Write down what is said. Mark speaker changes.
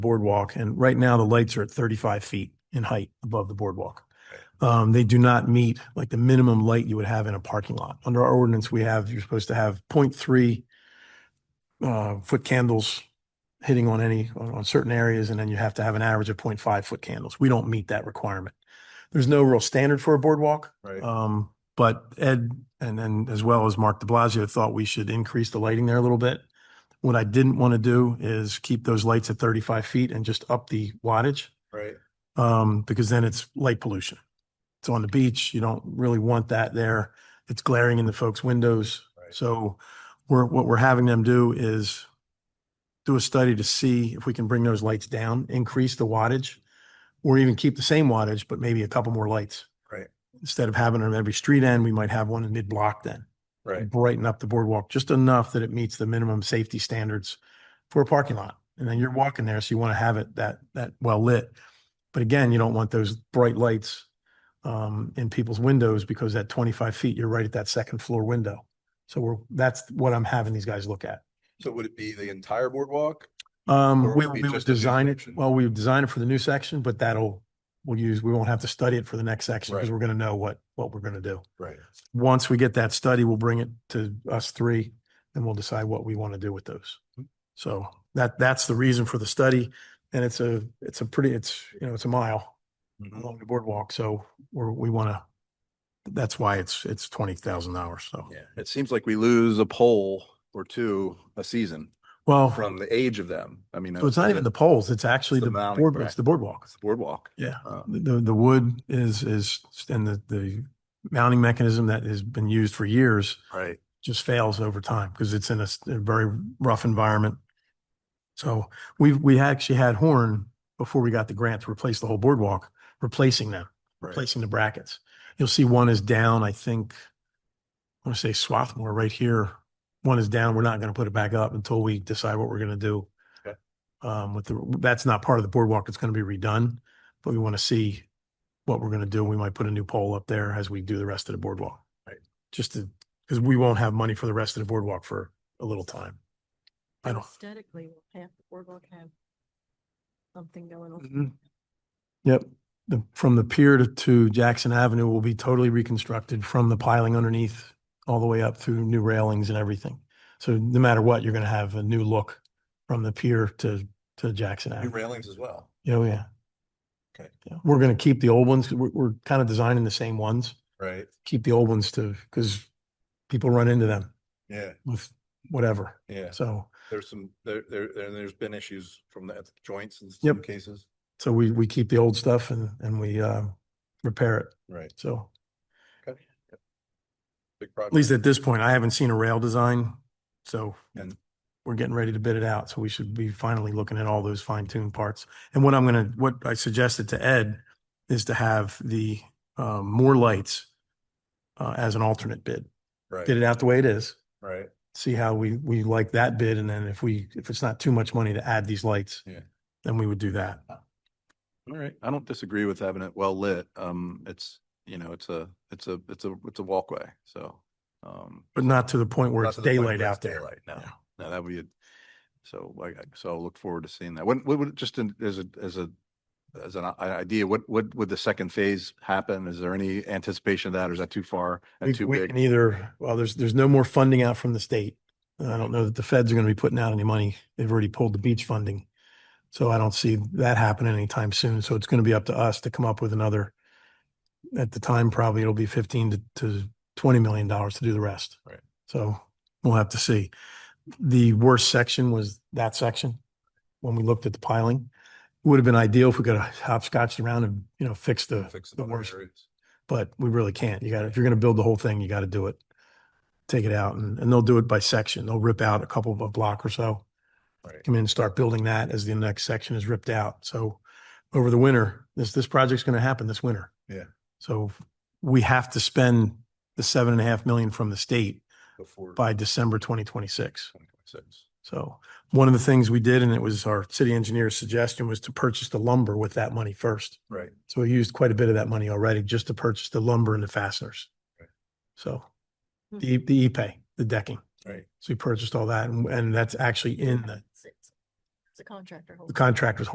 Speaker 1: boardwalk. And right now, the lights are at thirty-five feet in height above the boardwalk. Um, they do not meet like the minimum light you would have in a parking lot. Under our ordinance, we have, you're supposed to have 0.3 uh, foot candles hitting on any, on, on certain areas, and then you have to have an average of 0.5 foot candles. We don't meet that requirement. There's no real standard for a boardwalk.
Speaker 2: Right.
Speaker 1: Um, but Ed and then as well as Mark de Blasio thought we should increase the lighting there a little bit. What I didn't want to do is keep those lights at thirty-five feet and just up the wattage,
Speaker 2: Right.
Speaker 1: um, because then it's light pollution. It's on the beach. You don't really want that there. It's glaring in the folks' windows.
Speaker 2: Right.
Speaker 1: So we're, what we're having them do is do a study to see if we can bring those lights down, increase the wattage, or even keep the same wattage, but maybe a couple more lights.
Speaker 2: Right.
Speaker 1: Instead of having them every street end, we might have one in mid-block then
Speaker 2: Right.
Speaker 1: brighten up the boardwalk just enough that it meets the minimum safety standards for a parking lot. And then
Speaker 2: Mm-hmm.
Speaker 1: you're walking there, so you want to have it that, that well lit. But again, you don't want those bright lights um, in people's windows because at twenty-five feet, you're right at that second floor window. So we're, that's what I'm having these guys look at.
Speaker 2: So would it be the entire boardwalk? Or
Speaker 1: Um, we,
Speaker 2: would it be
Speaker 1: we would
Speaker 2: just a new
Speaker 1: design it,
Speaker 2: section?
Speaker 1: well, we would design it for the new section, but that'll, we'll use, we won't have to study it for the next section because
Speaker 2: Right.
Speaker 1: we're going to know what, what we're going to do
Speaker 2: Right.
Speaker 1: once we get that study, we'll bring it to us three and we'll decide what we want to do with those. So that, that's the reason for the study. And it's a, it's a pretty, it's, you know, it's a mile
Speaker 2: Mm. Oh,
Speaker 1: along the boardwalk. So we're, we want to, that's why it's, it's twenty thousand dollars. So,
Speaker 2: Yeah, it seems like we lose a pole or two a season
Speaker 1: well,
Speaker 2: from the age of them. I mean.
Speaker 1: so it's not even the poles. It's actually
Speaker 2: the
Speaker 1: the
Speaker 2: mounting,
Speaker 1: board,
Speaker 2: right.
Speaker 1: it's the boardwalk.
Speaker 2: it's the Boardwalk.
Speaker 1: Yeah.
Speaker 2: Uh,
Speaker 1: The, the wood is, is, and the, the mounting mechanism that has been used for years
Speaker 2: Right.
Speaker 1: just fails over time because it's in a, s- a very rough environment. So we've, we actually had Horn before we got the grant to replace the whole boardwalk, replacing them,
Speaker 2: Right.
Speaker 1: replacing the brackets. You'll see one is down, I think, I want to say Swarthmore right here. One is down. We're not going to put it back up until we decide what we're going to do.
Speaker 2: Okay.
Speaker 1: Um, with the, that's not part of the boardwalk. It's going to be redone, but we want to see what we're going to do. We might put a new pole up there as we do the rest of the boardwalk.
Speaker 2: Right.
Speaker 1: Just to, because we won't have money for the rest of the boardwalk for a little time. I don't,
Speaker 3: Aesthetically, we'll have, we're gonna have something going on.
Speaker 1: Mhm.
Speaker 2: Mm-hmm.
Speaker 1: Yep, the, from the pier to, to Jackson Avenue will be totally reconstructed from the piling underneath all the way up through new railings and everything. So no matter what, you're gonna have a new look from the pier to, to Jackson
Speaker 2: New
Speaker 1: Avenue.
Speaker 2: railings as well.
Speaker 1: Oh, yeah.
Speaker 2: Okay.
Speaker 1: Yeah, We're gonna keep the old ones, 'cause we're, we're kind of designing the same ones,
Speaker 2: Right.
Speaker 1: keep the old ones to, because people run into them
Speaker 2: Yeah,
Speaker 1: with whatever,
Speaker 2: yeah.
Speaker 1: so.
Speaker 2: There's some, there, there, there- there's been issues from the joints in some
Speaker 1: Yep.
Speaker 2: cases.
Speaker 1: So we, we keep the old stuff and, and we, uh, repair it,
Speaker 2: Right.
Speaker 1: so.
Speaker 2: Big
Speaker 1: At least
Speaker 2: project.
Speaker 1: at this point, I haven't seen a rail design, so
Speaker 2: And-
Speaker 1: we're getting ready to bid it out, so we should be finally looking at all those fine tuned parts. And what I'm gonna, what I suggested to Ed is to have the um more lights uh as an alternate bid. Get
Speaker 2: Right,
Speaker 1: it out the way it is,
Speaker 2: right.
Speaker 1: see how we we like that bid, and then if we, if it's not too much money to add these lights,
Speaker 2: Yeah. Uh,
Speaker 1: then we would do that.
Speaker 2: All right. I don't disagree with having it well lit. Um, it's, you know, it's a, it's a, it's a, it's a walkway. So, um,
Speaker 1: But not to the point where
Speaker 2: Not
Speaker 1: it's
Speaker 2: to the point
Speaker 1: daylight
Speaker 2: where it's
Speaker 1: out there.
Speaker 2: daylight, No,
Speaker 1: Yeah.
Speaker 2: no, that would be, a- so like, I- so I'll look forward to seeing that. When, what would, just in- as a, as a, as an i- idea, what, what would the second phase happen? Is there any anticipation of that or is that too far
Speaker 1: We,
Speaker 2: and too
Speaker 1: we
Speaker 2: big?
Speaker 1: can either, well, there's, there's no more funding out from the state. And I don't know that the feds are going to be putting out any money. They've already pulled the beach funding. So I don't see that happening anytime soon. So it's going to be up to us to come up with another. At the time, probably it'll be fifteen to, to twenty million dollars to do the rest.
Speaker 2: Right.
Speaker 1: So we'll have to see. The worst section was that section when we looked at the piling. It Would have been ideal if we could have hopscotched around and, you know, fixed the
Speaker 2: Fix
Speaker 1: the
Speaker 2: other
Speaker 1: worst
Speaker 2: areas.
Speaker 1: but we really can't. You got, to if you're going to build the whole thing, you got to do it. Take it out and, and they'll do it by section. They'll rip out a couple of a block or so.
Speaker 2: Right.
Speaker 1: Come in and start building that as the next section is ripped out. So over the winter, this, this project's going to happen this winter.
Speaker 2: Yeah.
Speaker 1: So we have to spend the seven and a half million from the state
Speaker 2: Before
Speaker 1: by December 2026.
Speaker 2: 2026.
Speaker 1: So one of the things we did, and it was our city engineer's suggestion, was to purchase the lumber with that money first.
Speaker 2: Right.
Speaker 1: So we used quite a bit of that money already just to purchase the lumber and the fasteners.
Speaker 2: Right.
Speaker 1: So
Speaker 3: Hmm.
Speaker 1: the, the E-Pay, the decking.
Speaker 2: Right.
Speaker 1: So we purchased all that and, and that's actually in the
Speaker 3: It's it's a contractor.
Speaker 1: the
Speaker 3: hopefully.
Speaker 1: contractor's